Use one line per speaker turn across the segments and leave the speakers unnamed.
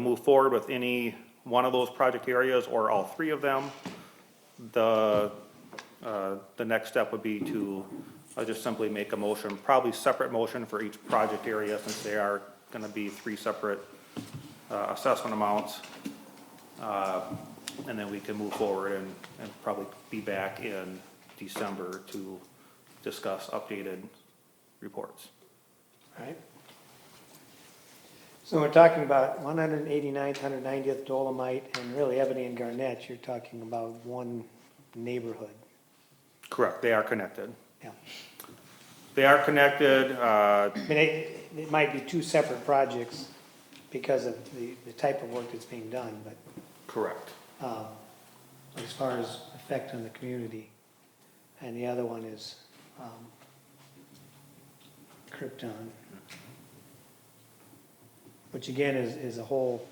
move forward with any one of those project areas or all three of them, the, uh, the next step would be to uh, just simply make a motion, probably separate motion for each project area since they are gonna be three separate uh, assessment amounts. Uh, And then we can move forward and, and probably be back in December to discuss updated reports.
Right. So we're talking about 189th, 190th Dolomite, and really Ebony and Garnett, you're talking about one neighborhood.
Correct, they are connected.
Yeah.
They are connected, uh,
I mean, it, it might be two separate projects because of the, the type of work that's being done, but,
correct.
um, as far as effect on the community. And the other one is, um, Krypton. Which again is, is a whole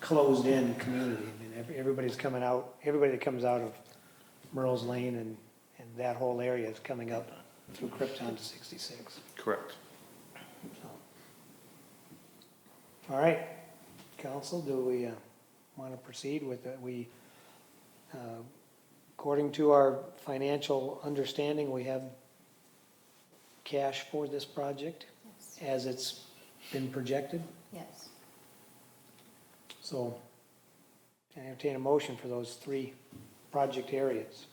closed-in community. I mean, every- everybody's coming out, everybody that comes out of Merle's Lane and, and that whole area is coming up through Krypton to sixty-six.
Correct.
All right, council, do we want to proceed with it? We, uh, according to our financial understanding, we have cash for this project
Yes.
as it's been projected,
Yes.
so I entertain a motion for those three project areas.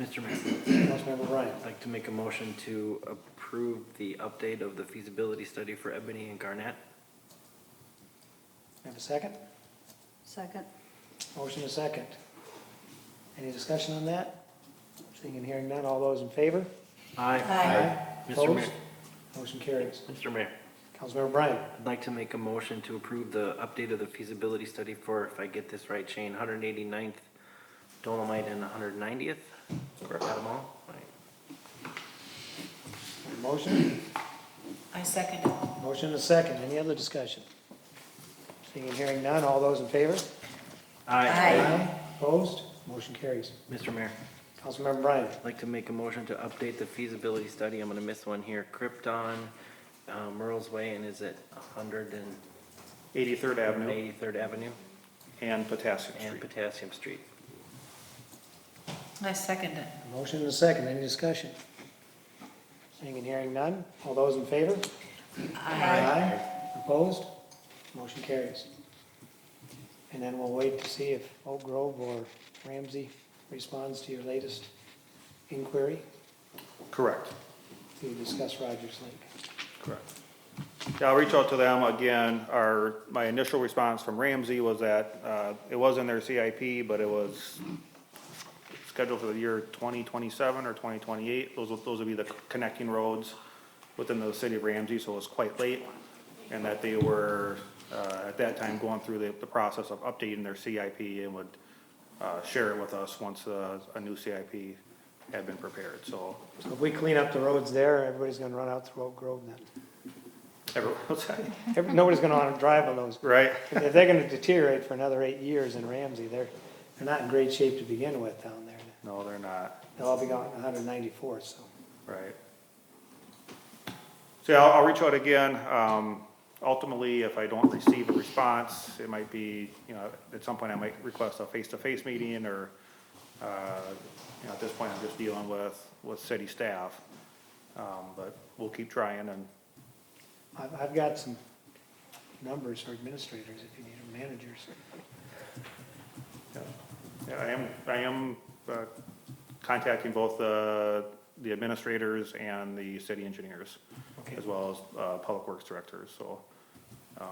Mr. Mayor,
Councilmember Ryan,
I'd like to make a motion to approve the update of the feasibility study for Ebony and Garnett.
have a second?
Second?
Motion is second. Any discussion on that? Seeing and hearing none, all those in favor?
Aye. Mr. Mayor,
Opposed? Motion carries.
Mr. Mayor,
Councilmember Bryan,
I'd like to make a motion to approve the update of the feasibility study for, if I get this right, Shane, 189th Dolomite and 190th. Correct. Got 'em all? Right.
motion?
I second it.
Motion is second. Any other discussion? Seeing and hearing none, all those in favor?
Aye.
Opposed? Motion carries.
Mr. Mayor,
Councilmember Bryan,
I'd like to make a motion to update the feasibility study. I'm gonna miss one here. Krypton, uh, Merle's Way, and is it 183rd
83rd Avenue
Avenue?
and Potassium
and
Street.
Potassium Street.
I second it.
motion is second. Any discussion? Seeing and hearing none, all those in favor? Opposed? Motion carries. And then we'll wait to see if Oak Grove or Ramsey responds to your latest inquiry
Correct,
to discuss Rogers Lake.
correct. Yeah, I'll reach out to them again. Our, my initial response from Ramsey was that, uh, it was in their CIP, but it was scheduled for the year twenty twenty-seven or twenty twenty-eight. Those, would- those would be the connecting roads within the city of Ramsey, so it was quite late. And that they were, uh, at that time going through the, the process of updating their CIP and would, uh, share it with us once, uh, a new CIP had been prepared, so.
So if we clean up the roads there, everybody's gonna run out through Oak Grove then.
Everyone was like,
Every- Nobody's gonna wanna drive on those.
right?
If they're gonna deteriorate for another eight years in Ramsey, they're, they're not in great shape to begin with down there.
No, they're not,
They'll all be gone in 194, so.
right. So yeah, I'll, I'll reach out again. Um, ultimately, if I don't receive a response, it might be, you know, at some point I might request a face-to-face meeting or, uh, you know, at this point, I'm just dealing with, with city staff. Um, but we'll keep trying and,
I've, I've got some numbers for administrators if you need them, managers.
yeah. yeah, I am, I am, uh, contacting both the, the administrators and the city engineers.
Okay.
as well as uh, Public Works Directors, so. um,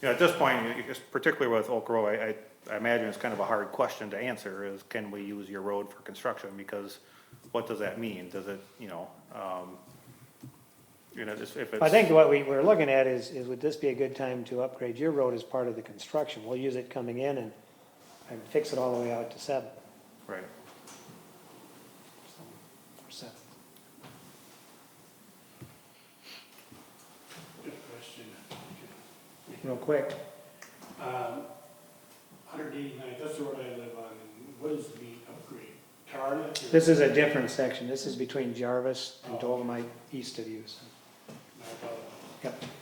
You know, at this point, you- you- particularly with Oak Grove, I, I- I imagine it's kind of a hard question to answer is, can we use your road for construction? Because what does that mean? Does it, you know, um, you know, just if it's.
I think what we, we're looking at is, is would this be a good time to upgrade your road as part of the construction? We'll use it coming in and, and fix it all the way out to seven,
Right,
so, or seven.
Good question.
Real quick,
Um, Hundred eighty-nine, that's the road I live on, and what is the upgrade? Tarn?
this is a different section. This is between Jarvis and Dolomite east of you, so. Yep.